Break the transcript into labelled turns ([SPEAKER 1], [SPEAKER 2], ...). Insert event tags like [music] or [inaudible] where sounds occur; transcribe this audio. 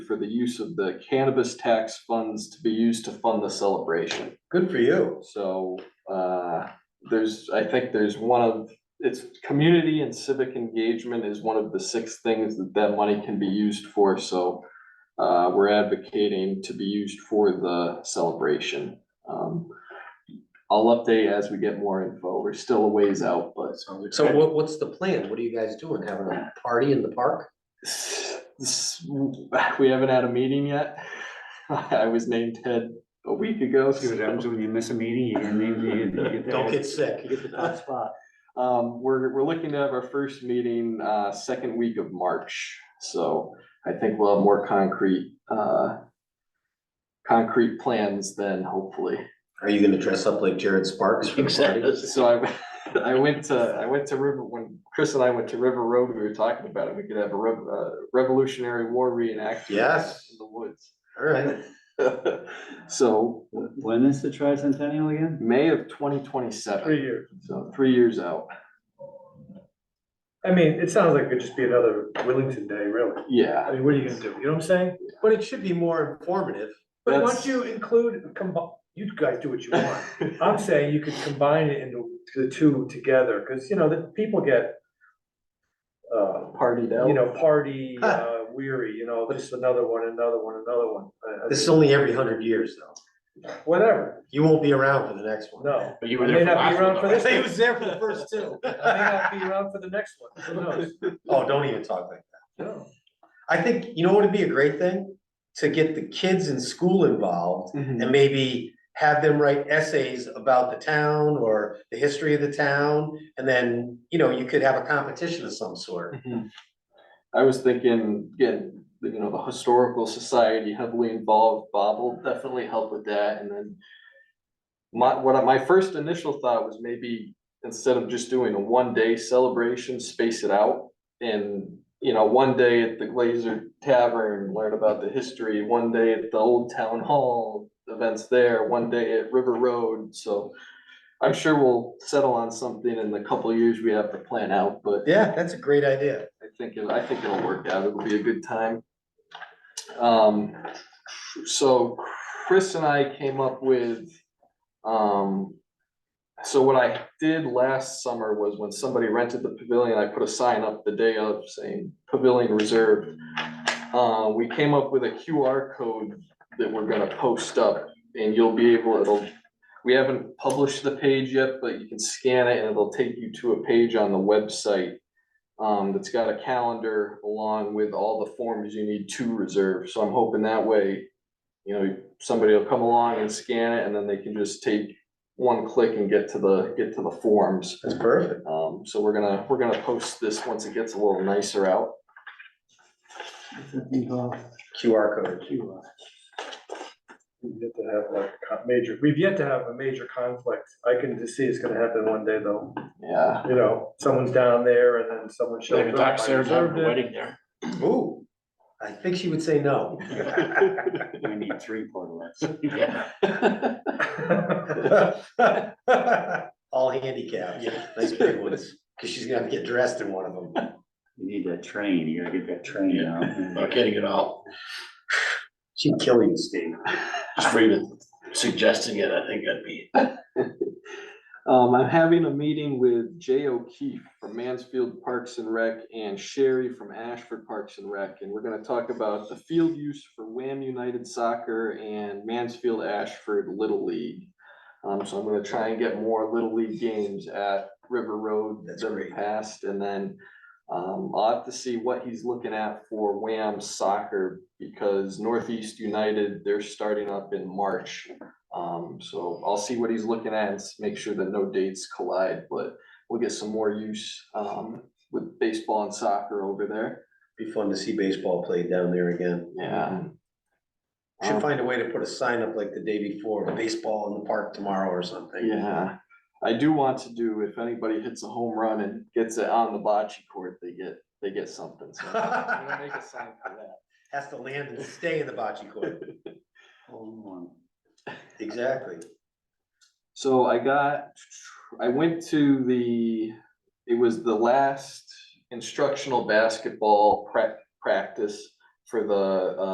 [SPEAKER 1] for the use of the cannabis tax funds to be used to fund the celebration.
[SPEAKER 2] Good for you.
[SPEAKER 1] So, uh, there's, I think there's one of, it's community and civic engagement is one of the six things that that money can be used for, so. Uh, we're advocating to be used for the celebration. Um, I'll update as we get more info. We're still a ways out, but
[SPEAKER 3] So what, what's the plan? What are you guys doing? Having a party in the park?
[SPEAKER 1] s- we haven't had a meeting yet. I was named head a week ago.
[SPEAKER 4] See what happens
[SPEAKER 1] so,
[SPEAKER 4] when you miss a meeting, you get named, you get- you get.
[SPEAKER 3] Don't get sick. You get the hot spot.
[SPEAKER 1] Um, we're, we're looking to have our first meeting, uh, second week of March, so I think we'll have more concrete, uh. Concrete plans then hopefully.
[SPEAKER 3] Are you gonna dress up like Jared Sparks for the party?
[SPEAKER 1] So I, I went to, I went to River, when Chris and I went to River Road, we were talking about it, we could have a rev- uh, Revolutionary War reenactment.
[SPEAKER 3] Yes.
[SPEAKER 1] In the woods.
[SPEAKER 3] Alright,
[SPEAKER 1] [laughs] So
[SPEAKER 4] When is the tricentennial again?
[SPEAKER 1] May of twenty twenty-seven,
[SPEAKER 2] Three years.
[SPEAKER 1] so three years out.
[SPEAKER 2] I mean, it sounds like it could just be another Willington Day, really.
[SPEAKER 1] Yeah,
[SPEAKER 2] I mean, what are you gonna do? You know what I'm saying?
[SPEAKER 3] but it should be more informative.
[SPEAKER 2] But
[SPEAKER 1] That's-
[SPEAKER 2] once you include, combine, you guys do what you want. [laughs] I'm saying you could combine it into the two together, cause you know, the people get uh,
[SPEAKER 1] partied out.
[SPEAKER 2] you know, [laughs] party uh, weary, you know, just another one, another one, another one. I- I
[SPEAKER 3] This is
[SPEAKER 2] mean,
[SPEAKER 3] only every hundred years though.
[SPEAKER 2] Whatever,
[SPEAKER 3] You won't be around for the next [laughs] one.
[SPEAKER 2] [laughs] no.
[SPEAKER 5] But you
[SPEAKER 2] I
[SPEAKER 5] were
[SPEAKER 2] may
[SPEAKER 5] there for
[SPEAKER 2] not be
[SPEAKER 5] last
[SPEAKER 2] around for
[SPEAKER 5] one.
[SPEAKER 2] this
[SPEAKER 3] He
[SPEAKER 2] one.
[SPEAKER 3] was there for the first two.
[SPEAKER 2] I may not be around for the next one, who knows?
[SPEAKER 3] [laughs] Oh, don't even talk like that.
[SPEAKER 2] No.
[SPEAKER 3] I think, you know what would be a great thing? To get the kids in school involved
[SPEAKER 1] Mhm.
[SPEAKER 3] and maybe have them write essays about the town or the history of the town. And then, you know, you could have a competition of some sort.
[SPEAKER 1] Mhm. I was thinking, getting, you know, the historical society heavily involved, Bob will definitely help with that, and then. My, what I- my first initial thought was maybe, instead of just doing a one-day celebration, space it out. And, you know, one day at the Glazer Tavern, learn about the history, one day at the Old Town Hall, events there, one day at River Road, so. I'm sure we'll settle on something in the couple of years we have to plan out, but
[SPEAKER 3] Mm-hmm. Yeah, that's a great idea.
[SPEAKER 1] I think, it- I think it'll work out. It'll be a good time. Um, so Chris and I came up with, um, so what I did last summer was when somebody rented the pavilion, I put a sign up the day of saying pavilion reserved. Uh, we came up with a QR code that we're gonna post up and you'll be able, it'll, we haven't published the page yet, but you can scan it and it'll take you to a page on the website um, that's got a calendar along with all the forms you need to reserve, so I'm hoping that way. You know, somebody will come along and scan it, and then they can just take one click and get to the, get to the forms.
[SPEAKER 3] That's perfect.
[SPEAKER 1] Um, so we're gonna, we're gonna post this once it gets a little nicer out.
[SPEAKER 3] QR code.
[SPEAKER 2] We've yet to have like a con- major, we've yet to have a major conflict. I can just see it's gonna happen one day though.
[SPEAKER 1] Yeah, [laughs]
[SPEAKER 2] You know, somene's down there and then someone shows
[SPEAKER 5] Like a
[SPEAKER 2] up.
[SPEAKER 5] doc
[SPEAKER 2] I
[SPEAKER 5] served
[SPEAKER 2] reserved
[SPEAKER 5] a
[SPEAKER 2] it.
[SPEAKER 5] wedding there.
[SPEAKER 3] Ooh, I think she would say [laughs] no.
[SPEAKER 4] We need three portlets.
[SPEAKER 5] Yeah.
[SPEAKER 2] [laughs]
[SPEAKER 3] All handicapped, nice big ones, because she's gonna have to get dressed in one of them.
[SPEAKER 4] You need that train, you gotta get that train out.
[SPEAKER 5] Not kidding at all.
[SPEAKER 3] She'd kill you, Steve.
[SPEAKER 5] Just for even suggesting it, I think that'd be.
[SPEAKER 1] um, I'm having a meeting with Jay O'Keefe from Mansfield Parks and Rec and Sherry from Ashford Parks and Rec. And we're gonna talk about the field use for Wham United Soccer and Mansfield Ashford Little League. Um, so I'm gonna try and get more Little League games at River Road
[SPEAKER 3] That's
[SPEAKER 1] than
[SPEAKER 3] great.
[SPEAKER 1] the past, and then. Um, I'll have to see what he's looking at for Wham soccer, because Northeast United, they're starting up in March. Um, so I'll see what he's looking at and s- make sure that no dates collide, but we'll get some more use, um, with baseball and soccer over there,
[SPEAKER 3] Be fun to see baseball played down there again.
[SPEAKER 1] yeah.
[SPEAKER 3] Should
[SPEAKER 1] Um,
[SPEAKER 3] find a way to put a sign up like the day before, baseball in the park tomorrow or something.
[SPEAKER 1] Yeah, I do want to do, if anybody hits a home run and gets it on the bocce court, they get, they get something, so.
[SPEAKER 3] [laughs]
[SPEAKER 1] I'm gonna make a sign for that.
[SPEAKER 3] Has to land and stay in the bocce court.
[SPEAKER 4] Hold
[SPEAKER 3] Exactly.
[SPEAKER 1] So I got, I went to the, it was the last instructional basketball prac- practice for the, uh,